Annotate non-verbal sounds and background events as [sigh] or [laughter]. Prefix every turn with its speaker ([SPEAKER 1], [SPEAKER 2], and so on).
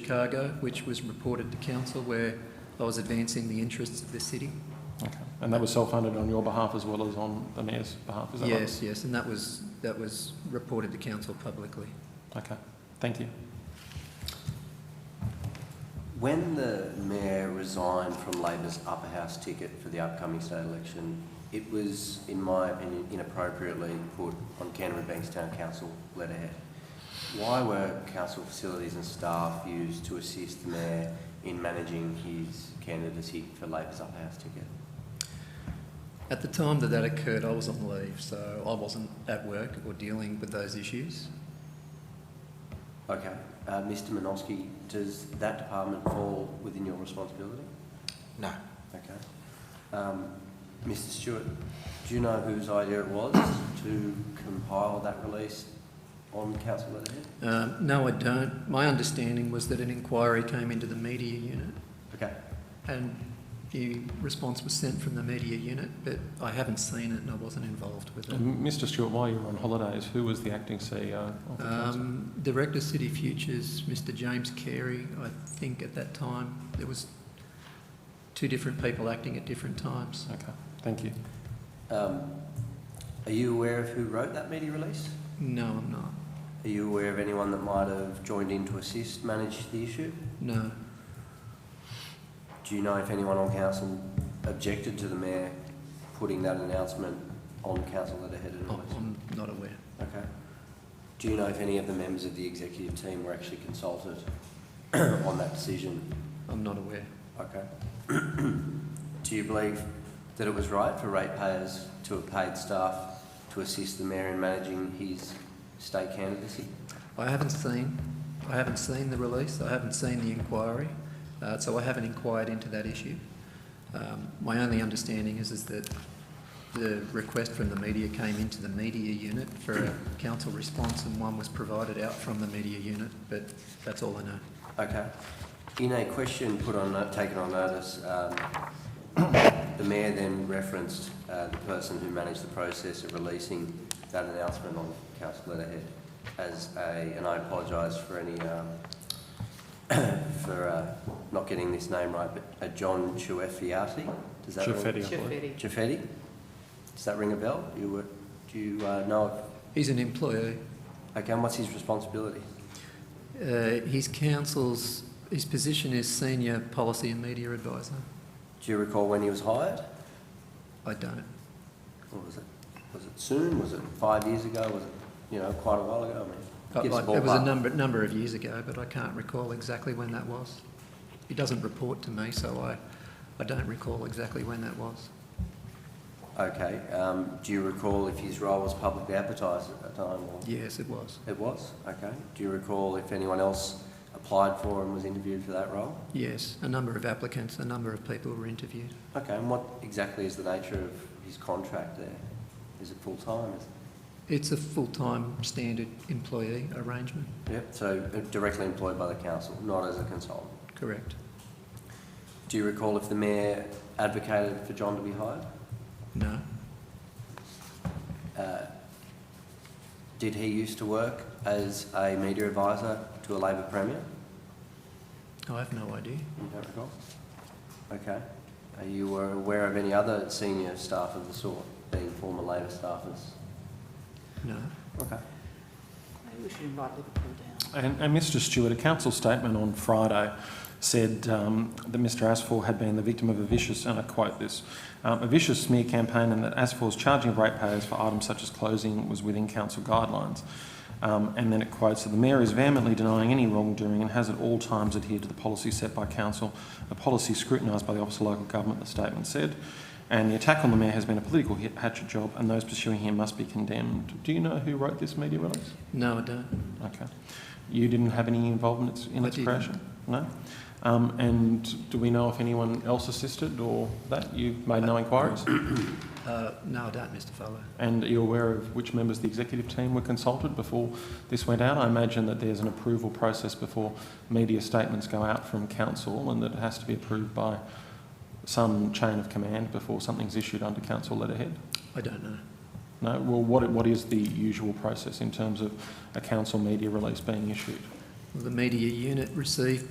[SPEAKER 1] Chicago, which was reported to council where I was advancing the interests of the city.
[SPEAKER 2] Okay. And that was self-funded on your behalf as well as on the mayor's behalf, is that right?
[SPEAKER 1] Yes, yes, and that was, that was reported to council publicly.
[SPEAKER 2] Okay, thank you.
[SPEAKER 3] When the mayor resigned from Labor's upper house ticket for the upcoming state election, it was, in my opinion, inappropriately put on Canberra Banks Town Council letterhead. Why were council facilities and staff used to assist the mayor in managing his candidacy for Labor's upper house ticket?
[SPEAKER 1] At the time that that occurred, I was on leave, so I wasn't at work or dealing with those issues.
[SPEAKER 3] Okay, uh, Mr. Manosky, does that department fall within your responsibility?
[SPEAKER 4] No.
[SPEAKER 3] Okay. Um, Mr. Stewart, do you know whose idea it was to compile that release on council letterhead?
[SPEAKER 1] Um, No, I don't. My understanding was that an inquiry came into the media unit,
[SPEAKER 3] Okay,
[SPEAKER 1] and the response was sent from the media unit, but I haven't seen it and I wasn't involved with it.
[SPEAKER 2] And Mr Stewart, while you were on holidays, who was the acting CEO of the council?
[SPEAKER 1] Um, Director City Futures, Mr James Carey, I think at that time, there was two different people acting at different times.
[SPEAKER 2] Okay, thank you.
[SPEAKER 3] um, are you aware of who wrote that media release?
[SPEAKER 1] No, I'm not.
[SPEAKER 3] Are you aware of anyone that might have joined in to assist manage the issue?
[SPEAKER 1] No.
[SPEAKER 3] Do you know if anyone on council objected to the mayor putting that announcement on council letterhead and
[SPEAKER 1] I'm
[SPEAKER 3] release?
[SPEAKER 1] I'm not aware.
[SPEAKER 3] Okay. Do you know if any of the members of the executive team were actually consulted [coughs] on that decision?
[SPEAKER 1] I'm not aware.
[SPEAKER 3] Okay. [coughs] Do you believe that it was right for ratepayers to have paid staff to assist the mayor in managing his state candidacy?
[SPEAKER 1] I haven't seen, I haven't seen the release, I haven't seen the inquiry, uh, so I haven't inquired into that issue. Um, my only understanding is, is that the request from the media came into the media unit for a council response and one was provided out from the media unit, but that's all I know.
[SPEAKER 3] Okay. In a question put on, uh, taken on notice, um, the mayor then referenced uh, the person who managed the process of releasing that announcement on council letterhead as a, and I apologise for any, um, [coughs] for uh, not getting this name right, but a John Chuefiati? Does that ring-
[SPEAKER 2] Chiafetti, I believe.
[SPEAKER 4] Chiafetti.
[SPEAKER 3] Jaffetti? Does that ring a bell? You were, do you uh, know?
[SPEAKER 1] He's an employee.
[SPEAKER 3] of- Okay, and what's his responsibility?
[SPEAKER 1] Uh, his council's, his position is senior policy and media advisor.
[SPEAKER 3] Do you recall when he was hired?
[SPEAKER 1] I don't.
[SPEAKER 3] Or was it, was it soon? Was it five years ago? Was it, you know, quite a while ago? I mean,
[SPEAKER 1] I-
[SPEAKER 3] give us
[SPEAKER 1] I- it was a
[SPEAKER 3] ballpark.
[SPEAKER 1] number, number of years ago, but I can't recall exactly when that was. He doesn't report to me, so I, I don't recall exactly when that was.
[SPEAKER 3] Okay, um, do you recall if his role was publicly advertised at that time? Or?
[SPEAKER 1] Yes, it was.
[SPEAKER 3] It was? Okay. Do you recall if anyone else applied for and was interviewed for that role?
[SPEAKER 1] Yes, a number of applicants, a number of people were interviewed.
[SPEAKER 3] Okay, and what exactly is the nature of his contract there? Is it full time? Is
[SPEAKER 1] It's a full-time standard employee arrangement,
[SPEAKER 3] Yep, so uh, directly employed by the council, not as a consultant.
[SPEAKER 1] correct?
[SPEAKER 3] Do you recall if the mayor advocated for John to be hired?
[SPEAKER 1] No,
[SPEAKER 3] Uh, Did he used to work as a media advisor to a Labor Premier?
[SPEAKER 1] I have no idea.
[SPEAKER 3] You don't recall? Okay. Are you were aware of any other senior staff of the sort being former Labor staffers?
[SPEAKER 1] No.
[SPEAKER 3] Okay.
[SPEAKER 4] Maybe we should invite Liverpool down.
[SPEAKER 2] And, and Mr Stewart, a council statement on Friday said um, that Mr Asfor had been the victim of a vicious, and I quote this, um, a vicious smear campaign and that Asfor's charging of ratepayers for items such as closing was within council guidelines. Um, and then it quotes that the mayor is vehemently denying any wrongdoing and has at all times adhered to the policy set by council, a policy scrutinised by the Office of Local Government, the statement said. And the attack on the mayor has been a political hit- hatchet job and those pursuing him must be condemned. Do you know who wrote this media release?
[SPEAKER 1] No, I don't.
[SPEAKER 2] Okay. You didn't have any involvement in
[SPEAKER 1] I
[SPEAKER 2] its
[SPEAKER 1] didn't.
[SPEAKER 2] creation? No? Um, and do we know if anyone else assisted or that? You've made no inquiries?
[SPEAKER 1] Uh, no, I don't, Mr Fowler.
[SPEAKER 2] And are you aware of which members of the executive team were consulted before this went out? I imagine that there's an approval process before media statements go out from council and that it has to be approved by some chain of command before something's issued under council letterhead?
[SPEAKER 1] I don't know.
[SPEAKER 2] No? Well, what, what is the usual process in terms of a council media release being issued?
[SPEAKER 1] The media unit received